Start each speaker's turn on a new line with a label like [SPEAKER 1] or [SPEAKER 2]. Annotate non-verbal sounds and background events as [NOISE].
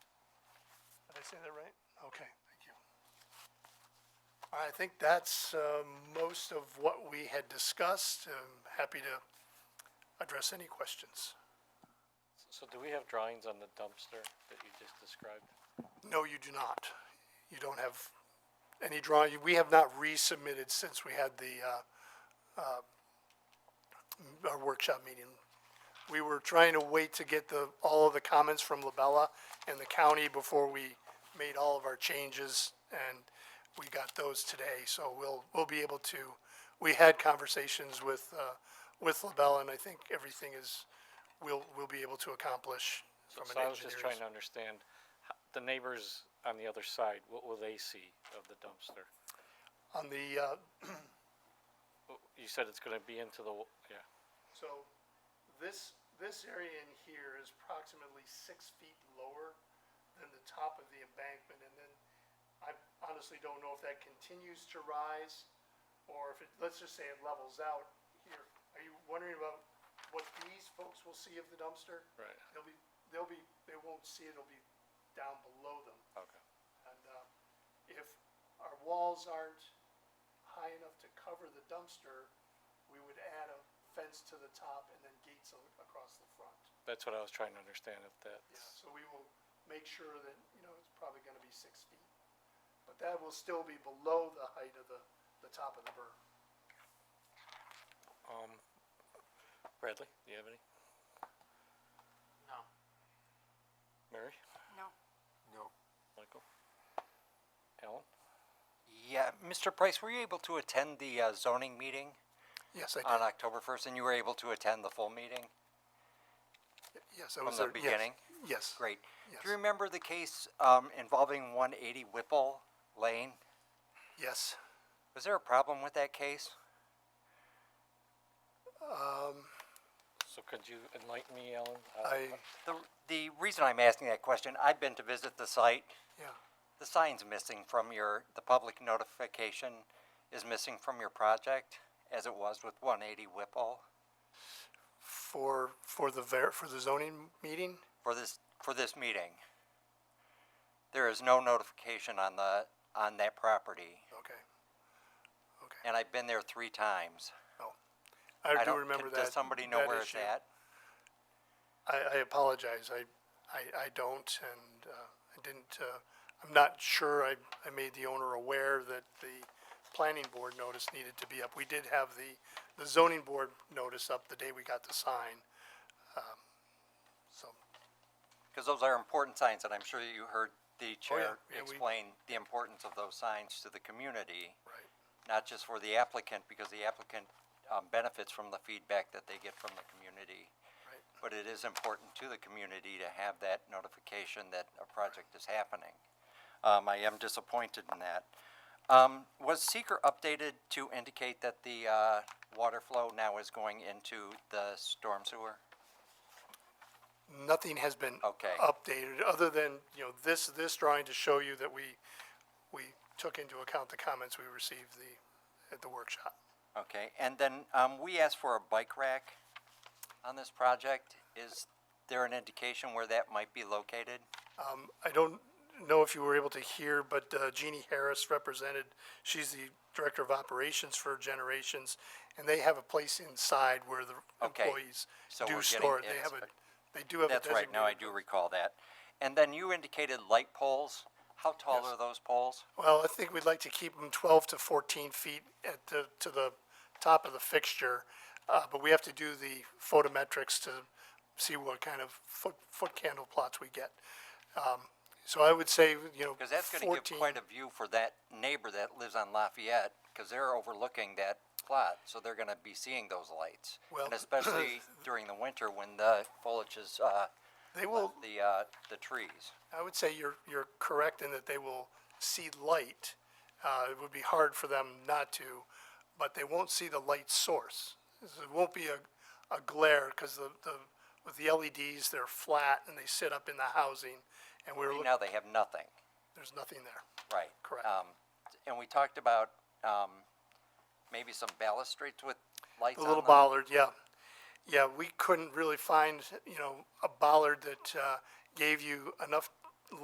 [SPEAKER 1] say that right? Okay, thank you. I think that's um, most of what we had discussed. Um, Happy to address any questions.
[SPEAKER 2] So do we have drawings on the dumpster that you just described?
[SPEAKER 1] No, you do not. You don't have any drawing. We have not resubmitted since we had the, uh, uh, our workshop meeting. We were trying to wait to get the, all of the comments from Labella and the county before we made all of our changes, and we got those today, so we'll, we'll be able to, we had conversations with, uh, with Labella, and I think everything is, we'll, we'll be able to accomplish
[SPEAKER 2] So
[SPEAKER 1] from
[SPEAKER 2] so
[SPEAKER 1] an
[SPEAKER 2] I was just trying
[SPEAKER 1] engineer's.
[SPEAKER 2] to understand, h- the neighbors on the other side, what will they see of the dumpster?
[SPEAKER 1] On the, uh,
[SPEAKER 2] Oh, You said it's gonna be into the, wa- yeah,
[SPEAKER 1] So this, this area in here is approximately six feet lower than the top of the embankment, and then I honestly don't know if that continues to rise, or if it, let's just say it levels out here. Are you wondering about what these folks will see of the dumpster?
[SPEAKER 2] right,
[SPEAKER 1] They'll be, they'll be, they won't see it, it'll be down below them.
[SPEAKER 2] okay.
[SPEAKER 1] And uh, if our walls aren't high enough to cover the dumpster, we would add a fence to the top and then gates a- across the front.
[SPEAKER 2] That's what I was trying to understand if that's,
[SPEAKER 1] So we will make sure that, you know, it's probably gonna be six feet. But that will still be below the height of the, the top of the berm.
[SPEAKER 2] um, Bradley, do you have any?
[SPEAKER 1] No.
[SPEAKER 2] Mary?
[SPEAKER 3] No.
[SPEAKER 4] No.
[SPEAKER 2] Michael? Alan?
[SPEAKER 4] Yeah, Mr. Price, were you able to attend the uh, zoning meeting
[SPEAKER 1] Yes, I
[SPEAKER 4] on
[SPEAKER 1] did.
[SPEAKER 4] October 1st, and you were able to attend the full meeting?
[SPEAKER 1] Yes, I
[SPEAKER 4] from
[SPEAKER 1] was
[SPEAKER 4] the
[SPEAKER 1] there. Yes.
[SPEAKER 4] beginning?
[SPEAKER 1] Yes.
[SPEAKER 4] Great.
[SPEAKER 1] Yes.
[SPEAKER 4] Do you remember the case um, involving 180 Whipple Lane?
[SPEAKER 1] Yes.
[SPEAKER 4] Was there a problem with that case?
[SPEAKER 2] So could you enlighten me, Alan?
[SPEAKER 4] Oh,
[SPEAKER 2] Uh,
[SPEAKER 1] Um, I,
[SPEAKER 4] The, the reason I'm asking that question, I've been to visit the site.
[SPEAKER 1] yeah,
[SPEAKER 4] The sign's missing from your, the public notification is missing from your project, as it was with 180 Whipple.
[SPEAKER 1] for, for the ver, for the zoning meeting?
[SPEAKER 4] for this, for this meeting. There is no notification on the, on that property,
[SPEAKER 1] Okay. Okay.
[SPEAKER 4] and I've been there three times.
[SPEAKER 1] Oh, I do
[SPEAKER 4] don't-
[SPEAKER 1] remember
[SPEAKER 4] can-
[SPEAKER 1] that.
[SPEAKER 4] Does somebody know
[SPEAKER 1] that
[SPEAKER 4] where it's
[SPEAKER 1] issue.
[SPEAKER 4] at?
[SPEAKER 1] I, I apologize. I, I, I don't, and uh, I didn't. Uh, I'm not sure. I, I made the owner aware that the planning board notice needed to be up. We did have the, the zoning board notice up the day we got the sign. Um, so
[SPEAKER 4] Because those are important signs, and I'm sure you heard the
[SPEAKER 1] Oh,
[SPEAKER 4] chair
[SPEAKER 1] yeah, we-
[SPEAKER 4] explain the importance of those signs to the community,
[SPEAKER 1] right,
[SPEAKER 4] not just for the applicant, because the applicant um, benefits from the feedback that they get from the community.
[SPEAKER 1] right.
[SPEAKER 4] But it is important to the community to have that notification that a project is happening. Um, I am disappointed in that. Um, was seeker updated to indicate that the, uh, water flow now is going into the storm sewer?
[SPEAKER 1] Nothing has been
[SPEAKER 4] Okay.
[SPEAKER 1] updated other than you know this this drawing to show you that we we took into account the comments we received the at the workshop.
[SPEAKER 4] Okay, and then, um, we asked for a bike rack on this project. Is there an indication where that might be located?
[SPEAKER 1] Um, I don't know if you were able to hear, but uh, Jeannie Harris represented, she's the Director of Operations for Generations, and they have a place inside where the
[SPEAKER 4] Okay,
[SPEAKER 1] employees
[SPEAKER 4] so
[SPEAKER 1] do
[SPEAKER 4] we're getting
[SPEAKER 1] store. it. They have a,
[SPEAKER 4] inside.
[SPEAKER 1] they do have a
[SPEAKER 4] That's
[SPEAKER 1] designated.
[SPEAKER 4] right, now I do recall that. And then you indicated light poles. How tall
[SPEAKER 1] Yes.
[SPEAKER 4] are those poles?
[SPEAKER 1] Well, I think we'd like to keep them twelve to fourteen feet at the, to the top of the fixture, uh, but we have to do the photometrics to see what kind of foot, foot candle plots we get. Um, So I would say, you know,
[SPEAKER 4] Because that's gonna give
[SPEAKER 1] 14
[SPEAKER 4] quite a view for that neighbor that lives on Lafayette, because they're overlooking that plot, so they're gonna be seeing those lights.
[SPEAKER 1] Well,
[SPEAKER 4] And especially
[SPEAKER 1] [COUGHS]
[SPEAKER 4] during the winter when the foliage is, uh,
[SPEAKER 1] They will,
[SPEAKER 4] the, uh, the trees.
[SPEAKER 1] I would say you're, you're correct in that they will see light. Uh, it would be hard for them not to, but they won't see the light source. It won't be a, a glare because the, the, with the LEDs, they're flat and they sit up in the housing and we're,
[SPEAKER 4] Right
[SPEAKER 1] look-
[SPEAKER 4] Now they have nothing,
[SPEAKER 1] there's nothing there.
[SPEAKER 4] right?
[SPEAKER 1] Correct.
[SPEAKER 4] Um, and we talked about, um, maybe some balustrades with lights
[SPEAKER 1] The
[SPEAKER 4] on
[SPEAKER 1] little
[SPEAKER 4] them.
[SPEAKER 1] bollard, yeah. Yeah, we couldn't really find, you know, a bollard that, uh, gave you enough